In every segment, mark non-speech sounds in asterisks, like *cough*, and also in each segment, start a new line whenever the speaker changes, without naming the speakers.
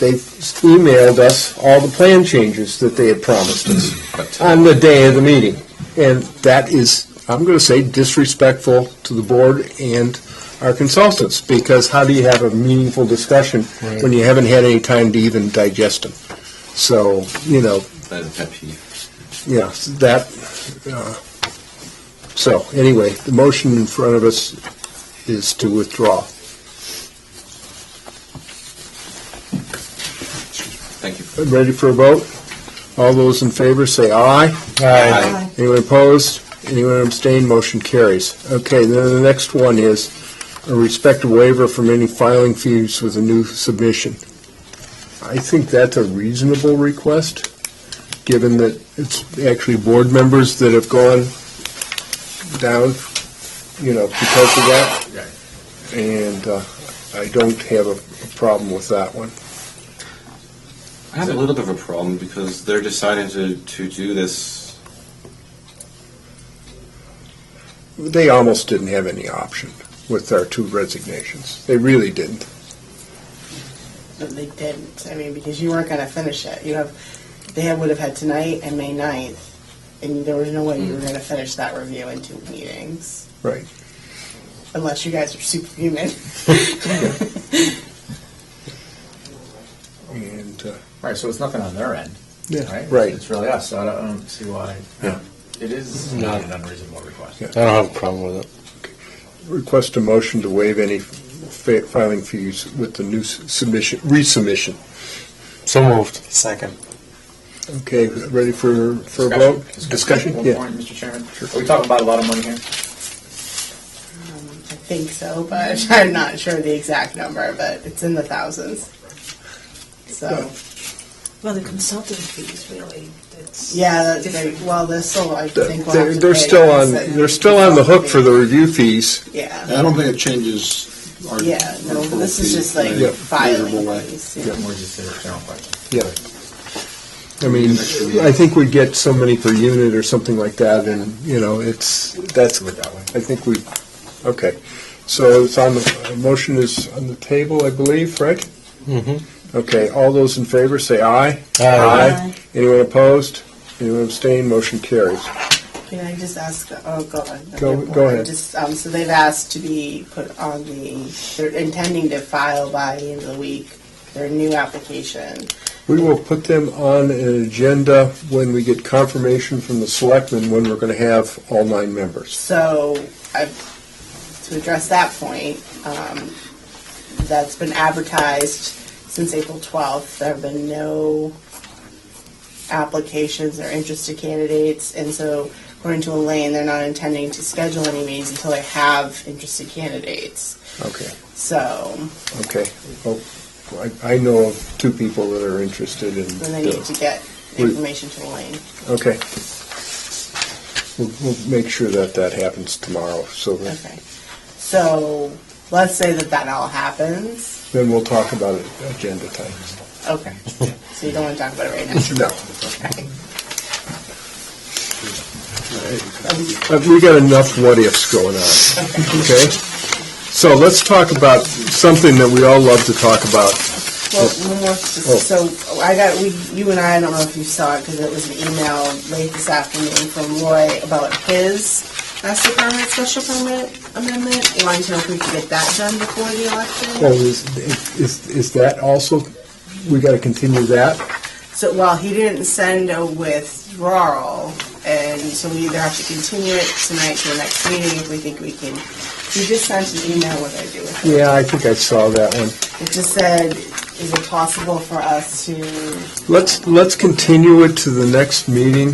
they emailed us all the plan changes that they had promised
uh,
us on the day of the meeting. And that is, I'm going to say disrespectful to the board and our consultants, because how do you have a meaningful discussion when you haven't had any time to even digest them? So, you know,
That is a pet peeve.
yeah, that, uh, so, anyway, the motion in front of us is to withdraw.
Thank you.
Ready for a vote? All those in favor say aye.
Aye.
Anyone opposed? Anyone abstain? Motion carries. Okay, then the next one is a respect waiver from any filing fees with a new submission. I think that's a reasonable request, given that it's actually board members that have gone down, you know, because of that. And uh, I don't have a problem with that one.
I have a little bit of a problem because they're deciding to, to do this.
They almost didn't have any option with our two resignations. They really didn't.
But they didn't. I mean, because you weren't going to finish it. You have, they had, would have had tonight and May 9th, and there was no way you were going to finish that review in two meetings.
Right.
Unless you guys are superhuman.
And, uh,
Right, so it's nothing on their end, right?
Right.
It's really us, so I don't, I don't see why.
Yeah.
It is not an unreasonable request.
Yeah.
I don't have a problem with it.
Request a motion to waive any fa- filing fees with the new s- submission, resubmission.
So moved. Second.
Okay, ready for, for a
Discussion.
vote? Discussion?
One
Yeah.
point, Mr. Chairman. Are we talking about a lot of money here?
I think so, but *laughs* I'm not sure the exact number, but it's in the thousands. So,
Well, the consulting fees, really, that's.
yeah, that- they,
different.
well, they're still, I think we'll have
They're
to
they're
pay
still on,
us and-
they're still on the hook for the review fees.
Yeah,
I don't think it changes our.
yeah, no, this is just like
Yeah.
filing
Measurable way.
fees.
Or just a general question?
Yeah. I mean, I think we get so many per unit or something like that, and, you know, it's, that's,
Do it that way.
I think we, okay. So it's on, the a motion is on the table, I believe, right? Okay, all those in favor, say aye.
Aye.
Anyone opposed? Anyone abstain? Motion carries.
Can I just ask, oh, go ahead.
Go-
Okay,
go ahead.
Just, um, so they've asked to be put on the, they're intending to file by the end of the week their new application.
We will put them on an agenda when we get confirmation from the selectmen when we're going to have all nine members.
So, I, to address that point, um, that's been advertised since April twelfth. There have been no applications or interested candidates, and so according to Elaine, they're not intending to schedule any meetings until they have interested candidates.
Okay,
So,
okay. Oh, I I know of two people that are interested in.
then they need to get
We-
information to Elaine.
Okay. We'll, we'll make sure that that happens tomorrow, so then-
Okay. So, let's say that that all happens.
then we'll talk about it agenda time.
Okay. So you don't want to talk about it right
*laughs*
now?
No.
Okay.
Uh, We got enough what-ifs going on, okay? So let's talk about something that we all love to talk about.
Well, one more, so I got, we, you and I, I don't know if you saw it, because it was an email late this afternoon from Roy about his master permit, special permit amendment. He Wanted to know if we could get that done before the
Well,
election.
is, is, is that also, we gotta continue that?
So, well, he didn't send a withdrawal, and so we either have to continue it tonight to the next meeting if we think we can. He just sent an email, what I do with it.
Yeah, I think I saw that one.
It just said, is it possible for us to
Let's, let's continue it to the next meeting.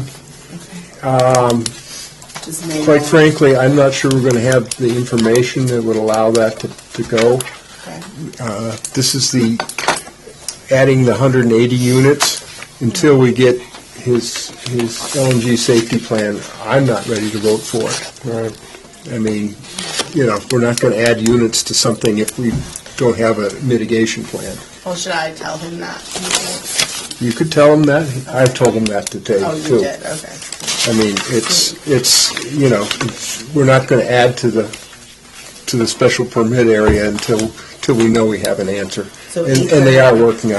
just make?
Quite frankly, I'm not sure we're gonna have the information that would allow that to, to go.
Okay.
Uh, This is the, adding the 180 units until we get his, his LNG safety plan. I'm not ready to vote for it.
Right.
I mean, you know, we're not gonna add units to something if we don't have a mitigation plan.
Well, Oh, should I tell him that?
You could tell him that. I've told him that today,
Oh, you
too.
did, okay.
I mean, it's, it's, you know, it's- we're not going to add to the, to the special permit area until, till we know we have an answer.
So
And
he
and they
could-
are working on.